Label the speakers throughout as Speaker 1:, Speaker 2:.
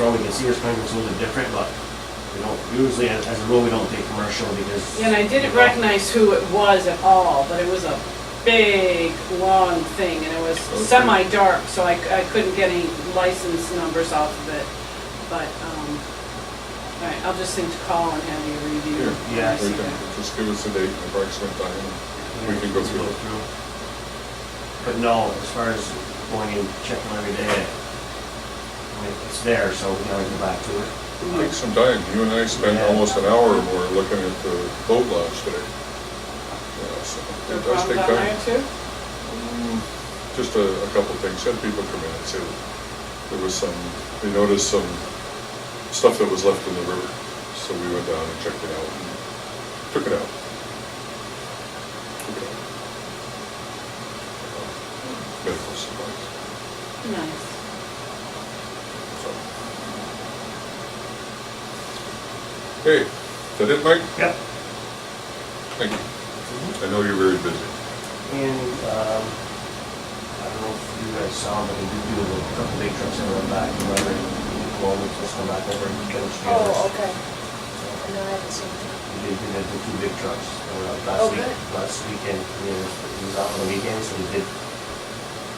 Speaker 1: more, we can see your sprinklers a little bit different, but we don't, usually, as as a rule, we don't take commercial because.
Speaker 2: And I didn't recognize who it was at all, but it was a big, long thing, and it was
Speaker 3: Okay.
Speaker 2: semi-dark, so I, I couldn't get any license numbers off of it. But, um, all right, I'll just think to call and have you review.
Speaker 3: Here.
Speaker 2: when
Speaker 1: Yeah,
Speaker 2: I see
Speaker 3: We can
Speaker 2: that.
Speaker 3: Just give us a date and approximate time, and we can go through. it.
Speaker 1: But no, as far as going and checking every day, I mean, it's there, so we can always go back to it.
Speaker 3: It'll
Speaker 2: Mm-hmm.
Speaker 3: Take some time. You and I spent almost an hour or more looking at the boat launch today. Yeah, so
Speaker 2: There
Speaker 3: It
Speaker 2: are problems
Speaker 3: does take
Speaker 2: down there too?
Speaker 3: time. Mm, Just a, a couple of things, had people come in and say that there was some, they noticed some stuff that was left in the river, so we went down and checked it out, and took it out. Took it out. Medical supplies,
Speaker 2: Nice.
Speaker 3: so. Hey, is that it, Mike?
Speaker 1: Yep.
Speaker 3: Thank you. Mm-hmm. I know you're very busy.
Speaker 1: And, um, I don't know if you guys saw, but we do do a couple big trucks that run back, whether, well, we just come back over and get them trailers.
Speaker 4: Oh, okay. No, I haven't seen it.
Speaker 1: They did the two big trucks, that were out last
Speaker 4: Oh,
Speaker 1: week,
Speaker 4: good.
Speaker 1: last weekend, he was, he was out on the weekend, so he did,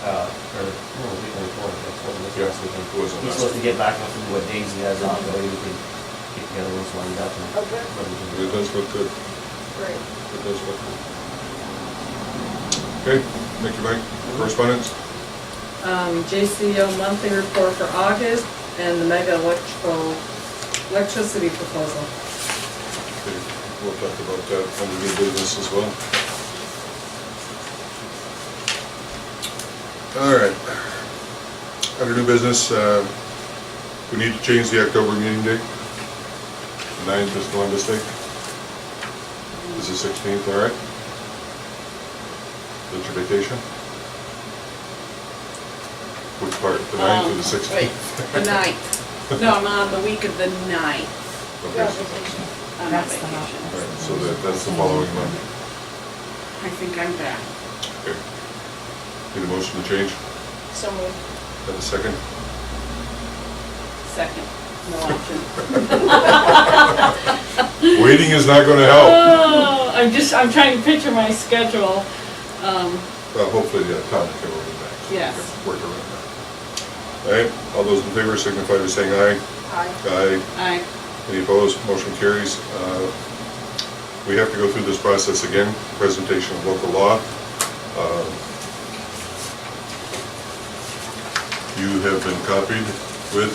Speaker 1: uh, or, no, the weekend before, that's what it was
Speaker 3: Yeah,
Speaker 1: last weekend.
Speaker 3: it was on
Speaker 1: He's
Speaker 3: last
Speaker 1: supposed to get back with what days he has off, but he can get the other ones lined up and.
Speaker 4: Oh, good.
Speaker 1: put them together.
Speaker 3: It does look good.
Speaker 4: Great.
Speaker 3: It does look good. Okay, thank you, Mike. Correspondence?
Speaker 5: um, JCO monthly report for August and the mega electrical, electricity proposal.
Speaker 3: Okay, We'll talk about that when we get business as well. All right. Under new business, uh, we need to change the October meeting date. Ninth is no mistake. Is the sixteenth, all right? Is your vacation? Which part, the ninth or the
Speaker 2: Um,
Speaker 3: sixteenth?
Speaker 2: The ninth. No, I'm on the week of the ninth.
Speaker 4: You're on vacation.
Speaker 2: I'm on
Speaker 6: That's the
Speaker 2: vacation.
Speaker 3: All right, so that, that's the following Monday.
Speaker 2: I think I'm back.
Speaker 3: Okay. Need a motion to change?
Speaker 4: So moved.
Speaker 3: Have a second?
Speaker 2: Second, no option.
Speaker 3: Waiting is not gonna help.
Speaker 2: Oh, I'm just, I'm trying to picture my schedule. Um,
Speaker 3: Well, hopefully, yeah, Tom can work it back.
Speaker 2: Yes.
Speaker 3: Work around that. All right, all those in favor signify by saying aye.
Speaker 4: Aye.
Speaker 3: Aye.
Speaker 2: I,
Speaker 3: Any opposed? Motion carries. Uh, We have to go through this process again, presentation of local law. Uh, You have been copied with,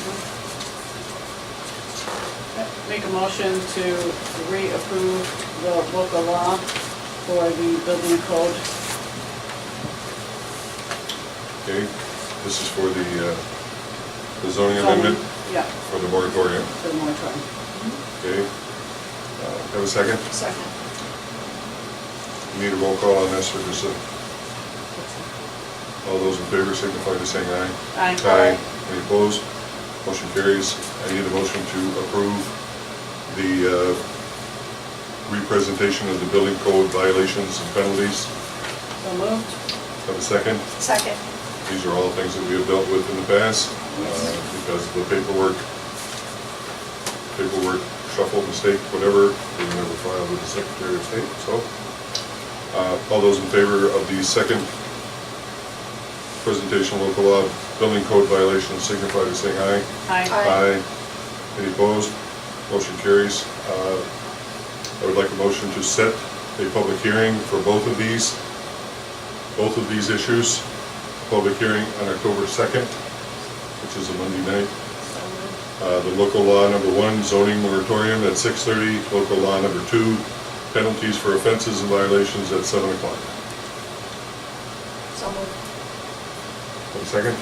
Speaker 2: Make a motion to reapprove the local law for the building code.
Speaker 3: okay, this is for the uh, the zoning amendment
Speaker 2: Yeah,
Speaker 3: for the moratorium,
Speaker 2: for the moratorium.
Speaker 3: okay? Uh, Have a second?
Speaker 4: Second.
Speaker 3: Need a roll call on this, or just a, all those in favor signify by saying aye.
Speaker 2: Aye.
Speaker 3: Any opposed? Motion carries. I need a motion to approve the uh, representation of the building code violations and penalties.
Speaker 2: So moved.
Speaker 3: Have a second?
Speaker 4: Second.
Speaker 3: These are all things that we have dealt with in the past, uh, because of the paperwork, paperwork shuffle, mistake, whatever, we never filed with the Secretary of State, so. uh, All those in favor of the second presentation of local law, building code violations, signify by saying aye.
Speaker 2: Aye.
Speaker 4: Aye.
Speaker 3: Any opposed? Motion carries. Uh, I would like a motion to set a public hearing for both of these, both of these issues. Public hearing on October 2nd, which is a Monday night.
Speaker 4: So moved.
Speaker 3: Uh, The local law number one, zoning moratorium at 6:30. Local law number two, penalties for offenses and violations at 7 o'clock.
Speaker 4: So moved.
Speaker 3: Have a second?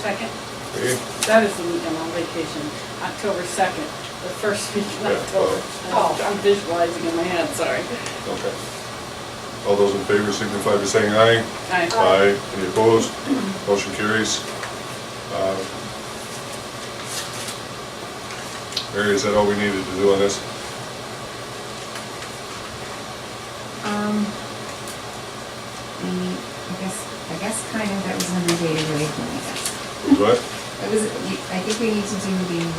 Speaker 2: Second.
Speaker 3: Okay.
Speaker 2: That is the week I'm on vacation, October 2nd, the first week of
Speaker 3: Yeah,
Speaker 2: October. Oh,
Speaker 4: well-
Speaker 2: I'm visualizing in my head, sorry.
Speaker 3: Okay. All those in favor signify by saying aye.
Speaker 2: Aye.
Speaker 3: Aye. Any opposed? Motion carries. Uh, Mary, is that all we needed to do on this?
Speaker 6: Um, the- I guess, I guess kind of that was another day away from me, I guess.
Speaker 3: What?
Speaker 6: It was, I think we need to do the